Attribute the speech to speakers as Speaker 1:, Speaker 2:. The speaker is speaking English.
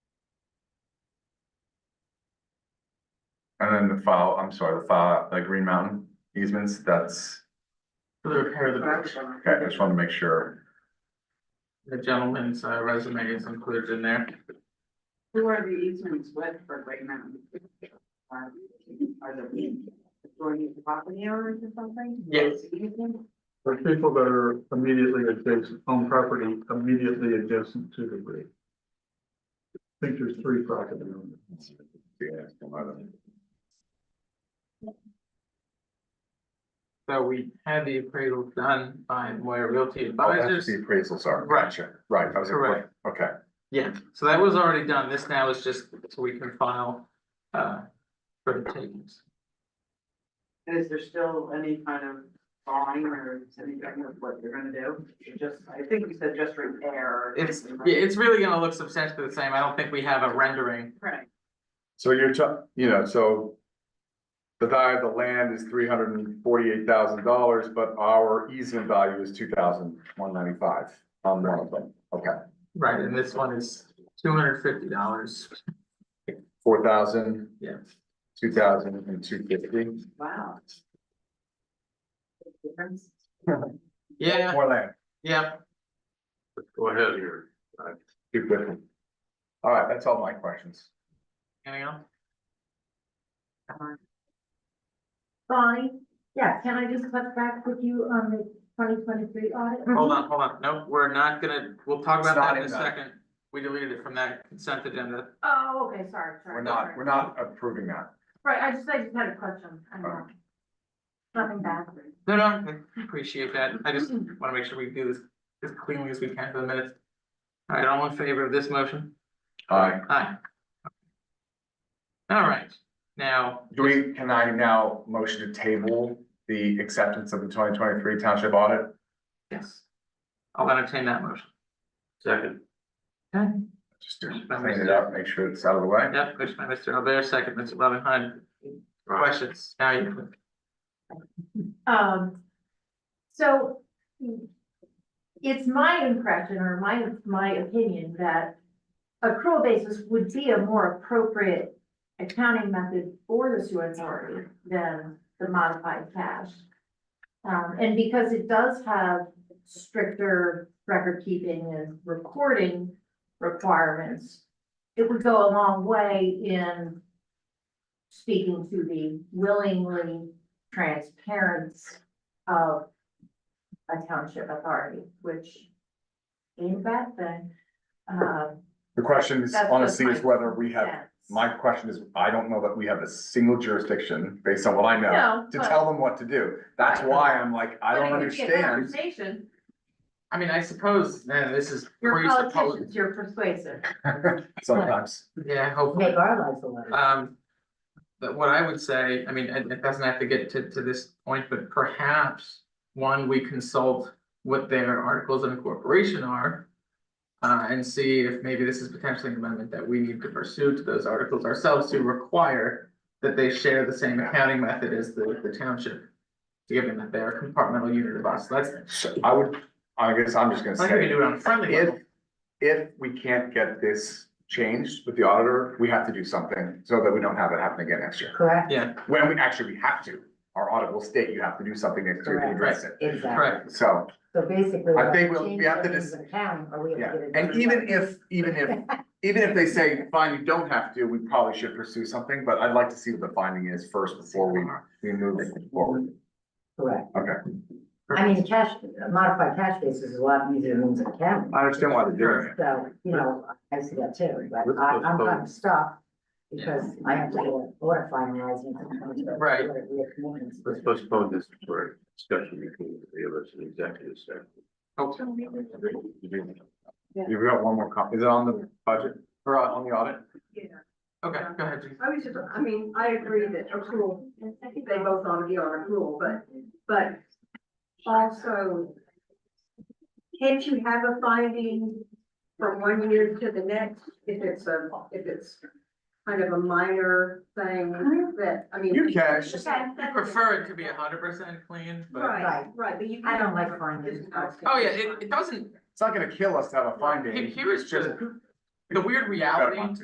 Speaker 1: then the file, I'm sorry, the file, the Green Mountain easements, that's,
Speaker 2: for the repair of the bridge.
Speaker 1: okay, I just wanted to make sure.
Speaker 2: The gentleman's uh, resume is included in there.
Speaker 3: Who are the easements with for Great Mountain? Are are the, joining the property owners or something?
Speaker 2: Yes.
Speaker 3: Easement?
Speaker 4: For people that are immediately adjacent, on property immediately adjacent to the bridge. I think there's three property owners.
Speaker 1: Yeah, come on.
Speaker 2: So we had the appraisal done by Moyer Realty
Speaker 1: Oh, that's
Speaker 2: Advisors.
Speaker 1: the appraisals are.
Speaker 2: Right.
Speaker 1: Gotcha. Right, I was.
Speaker 2: Correct.
Speaker 1: Okay,
Speaker 2: Yeah, so that was already done. This now is just so we can file uh for the takings.
Speaker 3: And is there still any kind of drawing or anything of what you're gonna do? You Just, I think you said just repair. or
Speaker 2: It's,
Speaker 3: something,
Speaker 2: yeah,
Speaker 3: right?
Speaker 2: it's really gonna look substantially the same. I don't think we have a rendering.
Speaker 3: Right,
Speaker 1: so you're, ta- you know, so the value of the land is three hundred and forty-eight thousand dollars, but our easement value is two thousand one ninety-five on one of them. Okay,
Speaker 2: Right, and this one is two hundred fifty dollars.
Speaker 1: four thousand,
Speaker 2: Yeah,
Speaker 1: two thousand and two fifty.
Speaker 3: wow. Difference?
Speaker 2: yeah,
Speaker 1: More land.
Speaker 2: yeah.
Speaker 4: Go ahead here.
Speaker 1: Two fifty. All right, that's all my questions.
Speaker 2: Anything else?
Speaker 5: Bonnie, yeah, can I just touch back with you on the twenty twenty-three audit?
Speaker 2: Hold on, hold on. Nope, we're not gonna, we'll talk
Speaker 1: It's
Speaker 2: about
Speaker 1: not
Speaker 2: that in a
Speaker 1: in that.
Speaker 2: second. We deleted it from that consent agenda.
Speaker 5: Oh, okay, sorry, sorry.
Speaker 1: We're not,
Speaker 5: sorry.
Speaker 1: we're not approving that.
Speaker 5: Right, I just, I just had a question, I know. Nothing bad.
Speaker 2: No, no, I appreciate that. I just wanna make sure we do this as cleanly as we can for the minutes. All right, all in favor of this motion?
Speaker 1: Aye.
Speaker 2: Aye. All right, now,
Speaker 1: Do we, can I now motion to table the acceptance of the twenty twenty-three township audit?
Speaker 2: yes. I'll entertain that motion.
Speaker 4: Second.
Speaker 2: Okay,
Speaker 1: Just to clean it up, make sure it's out of the way.
Speaker 2: yep, motion by Mr. Albert, second, Mr. Levinheim. Questions? Now you.
Speaker 5: Um, so it's my impression or my, my opinion that accrual basis would be a more appropriate accounting method for the sewer authority than the modified cash. Um, and because it does have stricter record keeping and recording requirements, it would go a long way in speaking to the willingly transparency of a township authority, which in fact then, um,
Speaker 1: The question is
Speaker 5: That's just
Speaker 1: honestly is
Speaker 5: my
Speaker 1: whether we have,
Speaker 5: sense.
Speaker 1: my uh, question is, I don't know that we have a single jurisdiction based on what I know.
Speaker 5: No,
Speaker 1: To
Speaker 5: but-
Speaker 1: tell them what to do. That's
Speaker 5: Right.
Speaker 1: why I'm like, I
Speaker 5: but
Speaker 1: don't
Speaker 5: it could be a
Speaker 1: understand.
Speaker 5: Conversation,
Speaker 2: I mean, I suppose, man, this is
Speaker 5: you're
Speaker 2: presupposed,
Speaker 5: politicians, you're persuasive.
Speaker 1: Sometimes.
Speaker 2: yeah, hopefully.
Speaker 3: Make our lives a little.
Speaker 2: Um, but what I would say, I mean, it, it doesn't have to get to, to this point, but perhaps, one, we consult what their articles of incorporation are. Uh, and see if maybe this is potentially an amendment that we need to pursue to those articles ourselves to require that they share the same accounting method as the, the township. Given that they're a compartmental unit of us, that's,
Speaker 1: So I would, I guess I'm just gonna
Speaker 2: I think we
Speaker 1: say,
Speaker 2: do it on a friendly
Speaker 1: if,
Speaker 2: level.
Speaker 1: if we can't get this changed with the auditor, we have to do something so that we don't have it happen again next year.
Speaker 3: Correct,
Speaker 2: Yeah,
Speaker 1: When we, actually, we have to, our audit will state you have to do something next year to address it.
Speaker 3: exactly.
Speaker 2: correct.
Speaker 1: So,
Speaker 3: So basically.
Speaker 1: I think we'll- we have to just-
Speaker 3: Town, are we?
Speaker 1: yeah, and even if, even if, even if they say, fine, you don't have to, we probably should pursue something, but I'd like to see what the finding is first before we, we move forward.
Speaker 6: Correct.
Speaker 1: Okay.
Speaker 6: I mean, cash, a modified cash basis is a lot easier than a cabinet.
Speaker 1: I understand why they're doing it.
Speaker 6: So, you know, I see that too, but I, I'm kind of stuck because I have to go order finalizing.
Speaker 2: Right.
Speaker 4: Let's postpone this for discussion between the three of us in executive session.
Speaker 2: Okay.
Speaker 1: You've Oh. got one more copy. Is it on the budget or on on the audit?
Speaker 2: Okay, go ahead, Jean.
Speaker 7: I was just, I mean, I agree that accrual, they both ought to be on accrual, but, but also, can't you have a finding from one year to the next if it's a, if it's kind of a minor thing
Speaker 6: Mm-hmm.
Speaker 7: that, I mean.
Speaker 1: You can, it's just,
Speaker 5: Okay.
Speaker 2: I prefer it to be hundred percent clean, but,
Speaker 7: Right, right, but you.
Speaker 6: I don't
Speaker 7: can-
Speaker 6: like findings.
Speaker 2: oh yeah, it, it doesn't,
Speaker 1: it's not gonna kill us to have a finding.
Speaker 2: Here- here is
Speaker 1: It's just-
Speaker 2: the weird reality